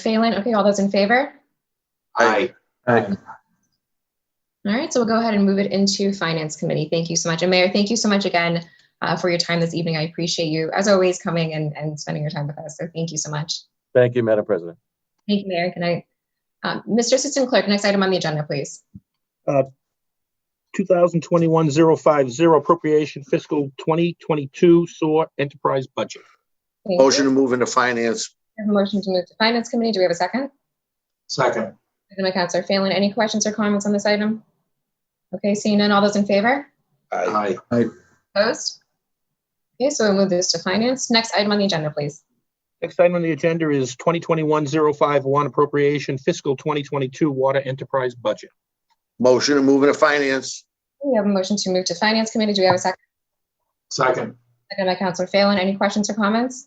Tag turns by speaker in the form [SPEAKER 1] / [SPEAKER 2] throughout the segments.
[SPEAKER 1] Phelan. Okay, all those in favor?
[SPEAKER 2] Aye.
[SPEAKER 3] Aye.
[SPEAKER 1] All right, so we'll go ahead and move it into Finance Committee. Thank you so much. And Mayor, thank you so much again uh, for your time this evening. I appreciate you, as always, coming and, and spending your time with us. So thank you so much.
[SPEAKER 3] Thank you, Madam President.
[SPEAKER 1] Thank you, Mayor. Good night. Um, Mr. Assistant Clerk, next item on the agenda, please.
[SPEAKER 4] 2021-050 appropriation fiscal 2022 SOAR enterprise budget.
[SPEAKER 1] Thank you.
[SPEAKER 2] Motion to move into finance.
[SPEAKER 1] We have a motion to move to Finance Committee. Do we have a second?
[SPEAKER 5] Second.
[SPEAKER 1] Second by Counselor Phelan. Any questions or comments on this item? Okay, seeing none. All those in favor?
[SPEAKER 2] Aye.
[SPEAKER 5] Aye.
[SPEAKER 1] Opposed? Okay, so we'll move this to Finance. Next item on the agenda, please.
[SPEAKER 4] Next item on the agenda is 2021-051 appropriation fiscal 2022 water enterprise budget.
[SPEAKER 2] Motion to move into finance.
[SPEAKER 1] We have a motion to move to Finance Committee. Do we have a second?
[SPEAKER 5] Second.
[SPEAKER 1] Second by Counselor Phelan. Any questions or comments?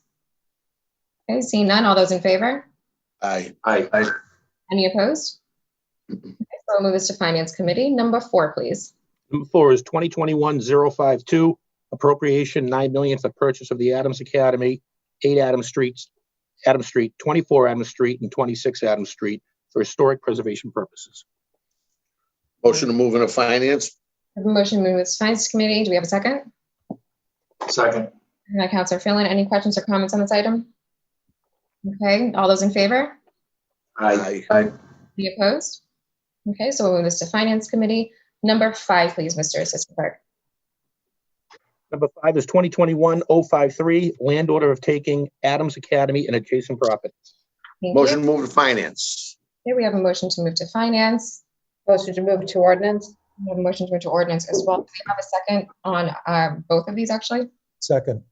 [SPEAKER 1] Okay, seeing none. All those in favor?
[SPEAKER 2] Aye.
[SPEAKER 5] Aye.
[SPEAKER 1] Any opposed? Okay, so we'll move this to Finance Committee. Number four, please.
[SPEAKER 4] Number four is 2021-052 appropriation 9 million for purchase of the Adams Academy, 8 Adams Streets, Adams Street, 24 Adams Street, and 26 Adams Street for historic preservation purposes.
[SPEAKER 2] Motion to move into finance.
[SPEAKER 1] We have a motion to move this to Finance Committee. Do we have a second?
[SPEAKER 5] Second.
[SPEAKER 1] Second by Counselor Phelan. Any questions or comments on this item? Okay, all those in favor?
[SPEAKER 2] Aye.
[SPEAKER 1] Any opposed? Okay, so we'll move this to Finance Committee. Number five, please, Mr. Assistant Clerk.
[SPEAKER 4] Number five is 2021-053 land order of taking Adams Academy and adjacent properties.
[SPEAKER 1] Thank you.
[SPEAKER 2] Motion to move to finance.
[SPEAKER 1] Okay, we have a motion to move to Finance.
[SPEAKER 6] Motion to move to ordinance?
[SPEAKER 1] We have a motion to move to Ordinance as well. Do we have a second on uh, both of these, actually?
[SPEAKER 3] Second.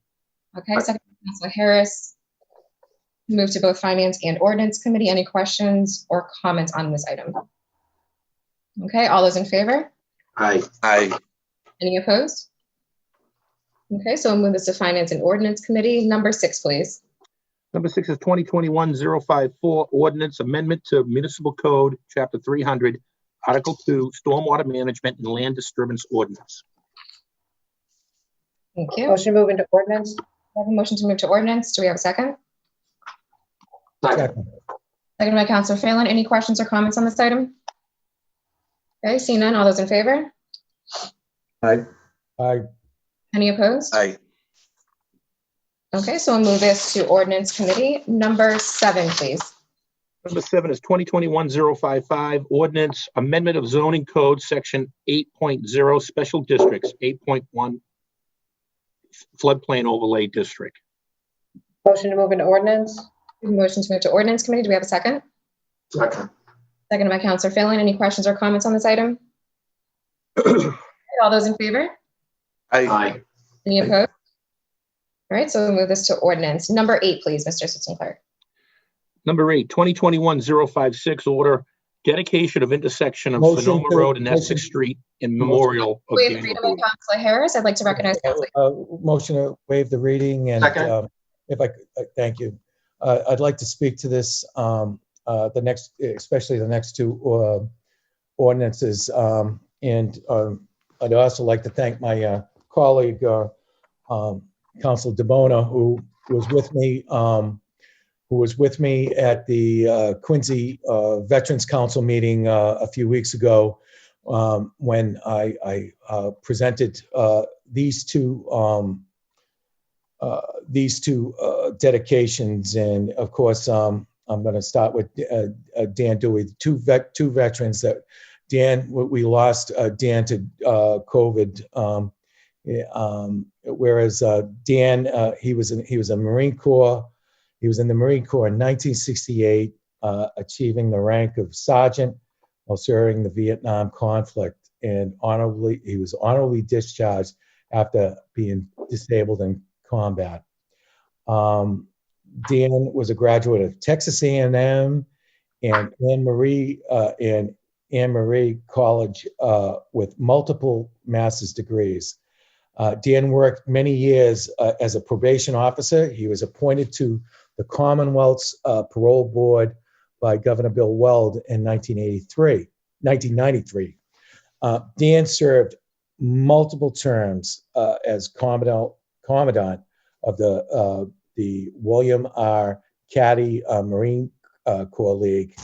[SPEAKER 1] Okay, second, by Counselor Harris. Move to both Finance and Ordinance Committee. Any questions or comments on this item? Okay, all those in favor?
[SPEAKER 5] Aye.
[SPEAKER 2] Aye.
[SPEAKER 1] Any opposed? Okay, so we'll move this to Finance and Ordinance Committee. Number six, please.
[SPEAKER 4] Number six is 2021-054, ordinance amendment to municipal code, chapter 300, article two, stormwater management and land disturbance ordinance.
[SPEAKER 1] Thank you. We
[SPEAKER 6] Motion to move into ordinance?
[SPEAKER 1] have a motion to move to ordinance. Do we have a second?
[SPEAKER 5] Second.
[SPEAKER 1] Second by Counselor Phelan. Any questions or comments on this item? Okay, seeing none. All those in favor?
[SPEAKER 3] Aye.
[SPEAKER 1] Any opposed?
[SPEAKER 2] Aye.
[SPEAKER 1] Okay, so we'll move this to Ordinance Committee. Number seven, please.
[SPEAKER 4] Number seven is 2021-055, ordinance amendment of zoning code, section 8.0, special districts, 8.1 floodplain overlay district.
[SPEAKER 6] Motion to move into ordinance?
[SPEAKER 1] We have a Motion to move to Ordinance Committee. Do we have a second?
[SPEAKER 5] Second.
[SPEAKER 1] Second by Counselor Phelan. Any questions or comments on this item? All those in favor?
[SPEAKER 2] Aye.
[SPEAKER 5] Aye.
[SPEAKER 1] Any opposed? All right, so we'll move this to ordinance. Number eight, please, Mr. Assistant Clerk.
[SPEAKER 4] Number eight, 2021-056, order dedication of intersection of
[SPEAKER 3] Motion
[SPEAKER 4] Sonoma
[SPEAKER 3] to-
[SPEAKER 4] Road and
[SPEAKER 3] motion-
[SPEAKER 4] Essex Street in memorial of
[SPEAKER 1] We have
[SPEAKER 4] Daniel
[SPEAKER 1] freedom
[SPEAKER 4] Boone.
[SPEAKER 1] of Counselor Harris. I'd like to recognize Counselor.
[SPEAKER 3] Uh, Motion to waive the reading and
[SPEAKER 5] Second.
[SPEAKER 3] um, if I, could- uh, thank you. Uh, I'd like to speak to this, um, uh, the next, especially the next two uh, ordinances. um, And um, I'd also like to thank my uh, colleague, uh, um, Counsel DeBona, who was with me, um, who was with me at the uh, Quincy uh, Veterans Council meeting uh, a few weeks ago um, when I, I uh, presented uh, these two um, uh, these two uh, dedications, and of course, um, I'm going to start with uh, uh, Dan Dewey. Two vet, two veterans that Dan we we lost uh, Dan to uh, COVID. Um, yeah, um, whereas uh, Dan uh, he was in, he was a Marine Corps. He was in the Marine Corps in 1968, uh, achieving the rank of sergeant while serving the Vietnam conflict, and honorably he was honorably discharged after being disabled in combat. Um, Dan was a graduate of Texas A&M and Anne Marie uh, and Anne Marie College uh, with multiple master's degrees. Uh, Dan worked many years uh, as a probation officer. He was appointed to the Commonwealth's uh, parole board by Governor Bill Weld in 1983, 1993. Uh, Dan served multiple terms uh, as commandant, commandant of the uh, the William R. Caddy uh, Marine uh, Core League.